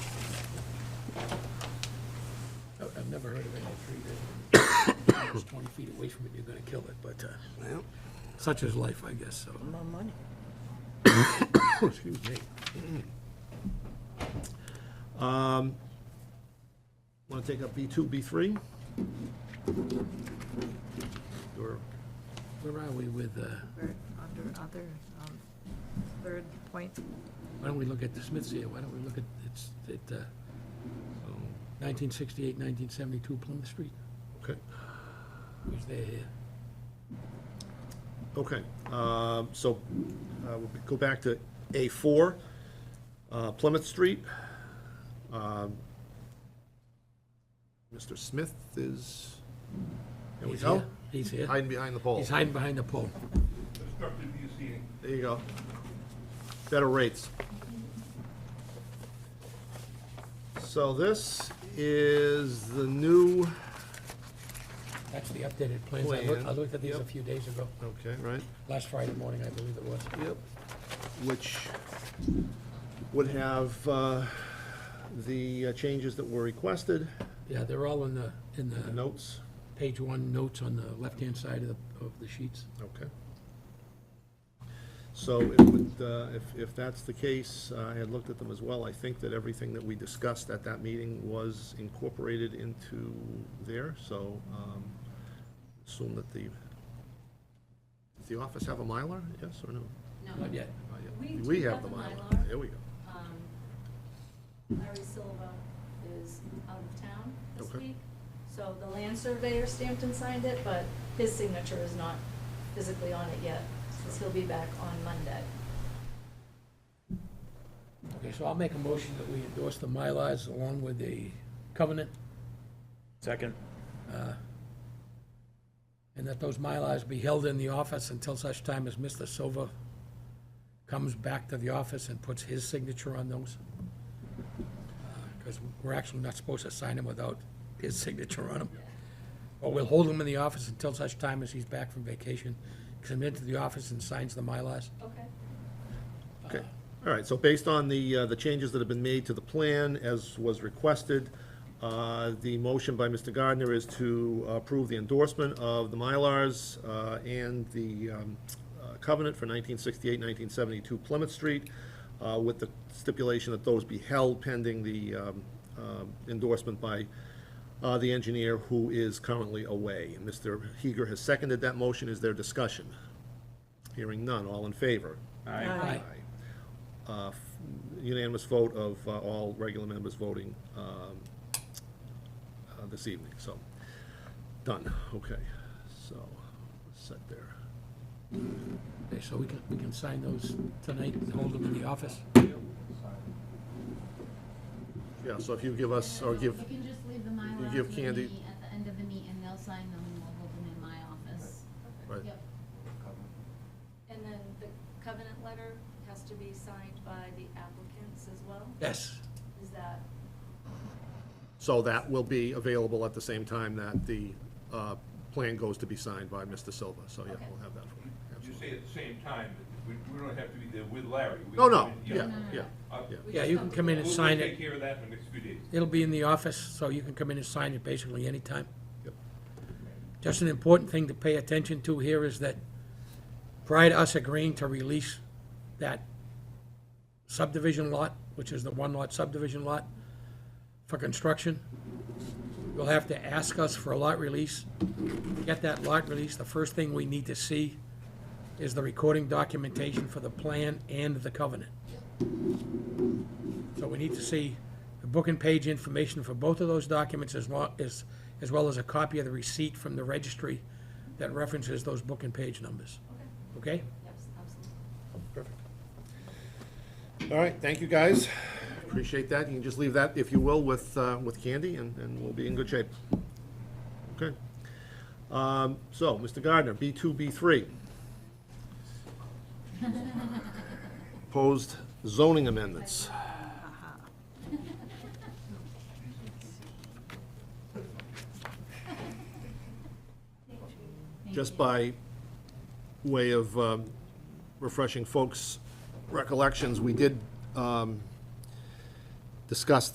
tree that is twenty feet away from it, you're gonna kill it, but, uh, Well, such is life, I guess, so. More money. Excuse me. Um, Want to take up B2, B3? Or, where are we with, uh, Or under other, um, third point. why don't we look at the Smiths here? Why don't we look at, it's, it, uh, oh, 1968, 1972 Plymouth Street? Okay, Who's there here? okay. Um, So uh, we'll go back to A4, uh, Plymouth Street. Um, Mr. Smith is, there we He's go. here. He's here. Hiding behind the pole. He's hiding behind the pole. obstructed view seating. There you go. Better rates. So this is the new, That's the updated plans. I looked, I looked at these a few days ago, okay, right? last Friday morning, I believe it was. Yep. Which would have uh, the uh, changes that were requested, Yeah, they're all in the, in the the notes. Page one, notes on the left-hand side of the, of the sheets. Okay. So it would, uh, if, if that's the case, uh, I had looked at them as well, I think that everything that we discussed at that meeting was incorporated into there, so, um, assume that the, does the office have a Mylar, yes or no? No, Not yet. Not yet. We do We have have the the Mylar, Mylar. there we go. um, Larry Silva is out of town this Okay. week. So the land surveyor stamped and signed it, but his signature is not physically on it yet, since he'll be back on Monday. Okay, so I'll make a motion that we endorse the Mylars along with the covenant, Uh, Second. and that those Mylars be held in the office until such time as Mr. Silva comes back to the office and puts his signature on those. Because we're actually not supposed to sign them without his signature on them. But we'll hold them in the office until such time as he's back from vacation, comes into the office and signs the Mylars. Okay. Okay, all right, so based on the, uh, the changes that have been made to the plan as was requested, uh, the motion by Mr. Gardner is to approve the endorsement of the Mylars uh, and the um, uh, covenant for 1968, 1972 Plymouth Street, uh, with the stipulation that those be held pending the um, um, endorsement by uh, the engineer who is currently away. Mr. Heeger has seconded that motion. Is there discussion? Hearing none. All in favor? Aye. Uh, f- Unanimous vote of uh, all regular members voting um, uh, this evening, so, done, okay, so, set there. Okay, so we can, we can sign those tonight and hold them in the office? Yeah, so if you give us, or give, You can just leave the Mylar give to Candy- me at the end of the meet, and they'll sign them, and we'll hold them in my office. right, Yep. And then the covenant letter has to be signed by the applicants as well? Yes. Is that, so that will be available at the same time that the uh, plan goes to be signed by Mr. Silva, so yeah, Okay. we'll have that for you. You absolutely. say at the same time, but we, we don't have to be there with Larry. We No, can- Oh, no, yeah, No, no, yeah, Uh, yeah. Yeah, you can come in and We'll, sign we'll it. take care of that in the next few days. It'll be in the office, so you can come in and sign it basically anytime. Yep. Just an important thing to pay attention to here is that prior to us agreeing to release that subdivision lot, which is the one-lot subdivision lot for construction, you'll have to ask us for a lot release. Get that lot release, the first thing we need to see is the recording documentation for the plan and the covenant. So we need to see the book and page information for both of those documents as lo as, as well as a copy of the receipt from the registry that references those book and page numbers. Okay? yes, absolutely. Perfect. All right, thank you, guys. Appreciate that. You can just leave that, if you will, with, uh, with Candy, and, and we'll be in good shape. Okay. Um, So, Mr. Gardner, B2, B3. Proposed zoning amendments. Just by way of um, refreshing folks' recollections, we did um, discuss